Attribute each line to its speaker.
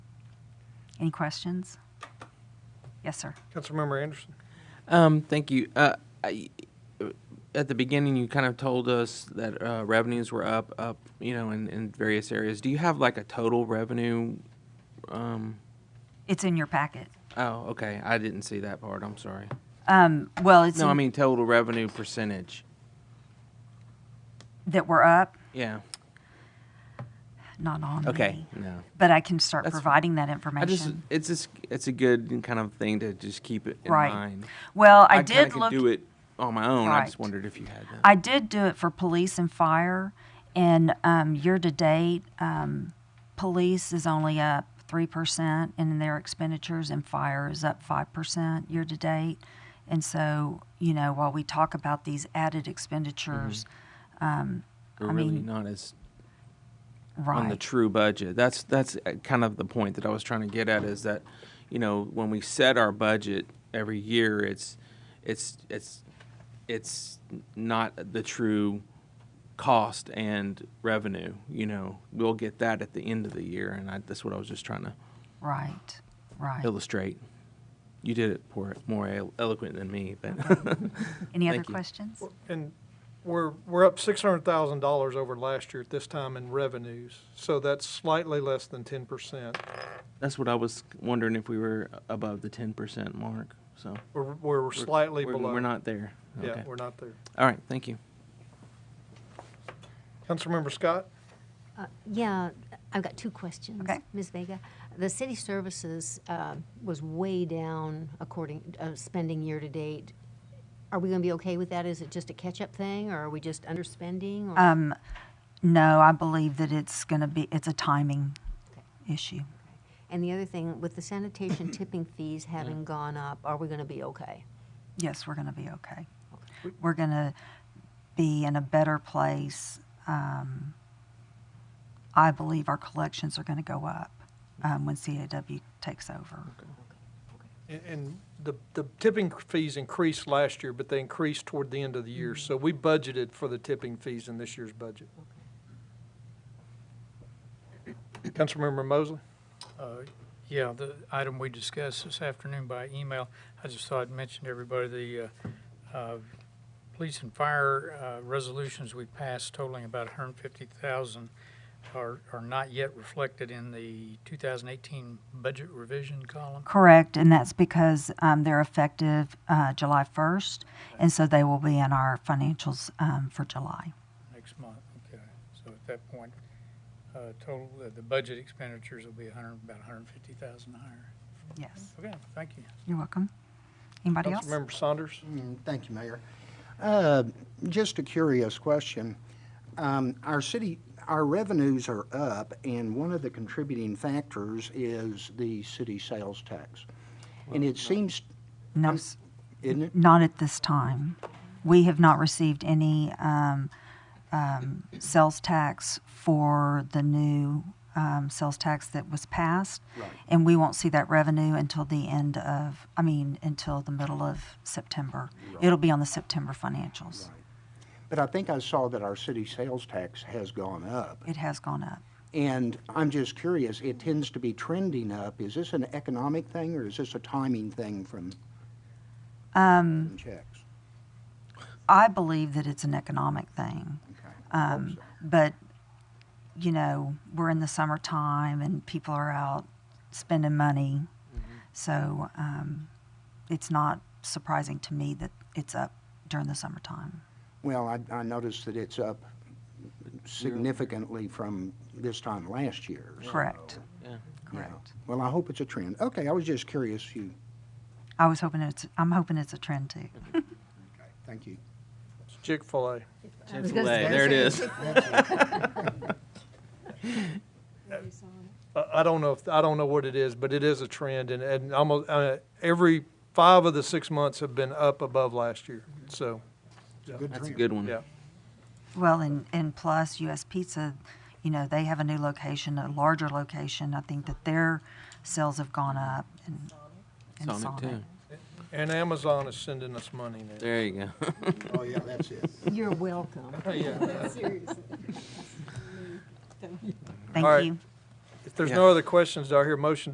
Speaker 1: Any questions? Yes, sir.
Speaker 2: Councilmember Anderson?
Speaker 3: Um, thank you. Uh, I, at the beginning, you kind of told us that uh, revenues were up, up, you know, in, in various areas. Do you have like a total revenue? Um,
Speaker 1: It's in your packet.
Speaker 3: oh, okay. I didn't see that part. I'm sorry.
Speaker 1: Um, well, it's
Speaker 3: No, I
Speaker 1: in-
Speaker 3: mean total revenue percentage.
Speaker 1: that we're up,
Speaker 3: Yeah.
Speaker 1: not on
Speaker 3: Okay.
Speaker 1: me,
Speaker 3: No.
Speaker 1: But I can start
Speaker 3: That's fine.
Speaker 1: providing that
Speaker 3: I just
Speaker 1: information.
Speaker 3: it's just it's a good kind of thing to just keep it in
Speaker 1: Right.
Speaker 3: mind.
Speaker 1: Well, I
Speaker 3: kinda
Speaker 1: did
Speaker 3: could
Speaker 1: look-
Speaker 3: do it on my own. I just
Speaker 1: Right.
Speaker 3: wondered if you had that.
Speaker 1: I did do it for police and fire, and um, year to date, um, police is only up three percent in their expenditures, and fire is up five percent year to date. And so, you know, while we talk about these added expenditures,
Speaker 3: We're
Speaker 1: I
Speaker 3: really
Speaker 1: mean,
Speaker 3: not as Mm-hmm. on the
Speaker 1: right?
Speaker 3: true budget. That's that's uh, kind of the point that I was trying to get at is that, you know, when we set our budget every year, it's it's it's it's not the true cost and revenue. You know, we'll get that at the end of the year, and I, that's what I was just trying to
Speaker 1: Right, right.
Speaker 3: illustrate. You did it more, more elo- eloquent than me, but
Speaker 1: Any other
Speaker 3: thank you.
Speaker 1: questions?
Speaker 2: And we're, we're up six hundred thousand dollars over last year at this time in revenues, so that's slightly less than ten percent.
Speaker 3: that's what I was wondering if we were above the ten percent mark. So
Speaker 2: We're, we're slightly
Speaker 3: we're,
Speaker 2: below.
Speaker 3: We're not there.
Speaker 2: Yeah,
Speaker 3: Okay.
Speaker 2: we're not there.
Speaker 3: All right. Thank you.
Speaker 2: Councilmember Scott?
Speaker 4: Uh, Yeah, I've got two questions.
Speaker 1: Okay.
Speaker 4: Ms. Vega, the city services uh, was way down according, uh, spending year-to-date. Are we going to be okay with that? Is it just a catch-up thing, or are we just underspending? or-
Speaker 1: Um, No, I believe that it's going to be, it's a timing issue.
Speaker 4: And the other thing, with the sanitation tipping fees having gone up, are we going to be okay?
Speaker 1: Yes, we're going to be okay. We're going to be in a better place. Um, I believe our collections are going to go up um, when CAW takes over.
Speaker 2: And- And the, the tipping fees increased last year, but they increased toward the end of the
Speaker 3: Mm-hmm.
Speaker 2: year, so we budgeted for the tipping fees in this year's budget. Councilmember Mosley?
Speaker 5: Uh, Yeah, the item we discussed this afternoon by email, I just thought I'd mention to everybody the uh, uh, police and fire uh, resolutions we passed totaling about 150,000 are are not yet reflected in the 2018 budget revision column.
Speaker 1: Correct, and that's because um, they're effective uh, July 1st, and so they will be in our financials um, for July.
Speaker 5: next month, okay. So at that point, uh, total, uh, the budget expenditures will be 100, about 150,000 higher.
Speaker 1: Yes,
Speaker 5: Okay, thank you.
Speaker 1: you're welcome. Anybody else?
Speaker 2: Councilmember Saunders?
Speaker 6: Mm, Thank you, Mayor. Uh, Just a curious question. Um, Our city, our revenues are up, and one of the contributing factors is the city sales tax. And it seems,
Speaker 1: No,
Speaker 6: I'm-
Speaker 1: s-
Speaker 6: isn't it?
Speaker 1: not at this time. We have not received any um, um, sales tax for the new um, sales tax that was passed. And we won't see that revenue until the end of, I mean, until the middle of September. It'll be on the September financials.
Speaker 6: But I think I saw that our city sales tax has gone up.
Speaker 1: It has gone up.
Speaker 6: And I'm just curious, it tends to be trending up. Is this an economic thing, or is this a timing thing from from checks?
Speaker 1: I believe that it's an economic thing.
Speaker 6: Okay.
Speaker 1: Um, but, you know, we're in the summertime and people are out spending money.
Speaker 3: Mm-hmm.
Speaker 1: So um, it's not surprising to me that it's up during the summertime.
Speaker 6: Well, I, I noticed that it's up significantly from this time last year. so,
Speaker 1: Correct.
Speaker 3: Yeah.
Speaker 6: yeah.
Speaker 1: Correct.
Speaker 6: Well, I hope it's a trend. Okay, I was just curious, you,
Speaker 1: I was hoping it's, I'm hoping it's a trend too.
Speaker 6: thank you.
Speaker 2: Chick-fil-A.
Speaker 4: I was
Speaker 3: Chick-fil-A,
Speaker 4: gonna say-
Speaker 3: there it is.
Speaker 2: I I don't know if, I don't know what it is, but it is a trend, and, and almost, uh, every five of the six months have been up above last year, so,
Speaker 3: That's a good one.
Speaker 2: yeah.
Speaker 1: Well, and, and plus US Pizza, you know, they have a new location, a larger location. I think that their sales have gone up and, and
Speaker 3: Sonic too.
Speaker 2: And Amazon is sending us money now.
Speaker 3: There you go.
Speaker 6: Oh, yeah, that's it.
Speaker 4: You're welcome.
Speaker 1: Thank
Speaker 2: All right.
Speaker 1: you.
Speaker 2: If there's no other questions, do I hear a motion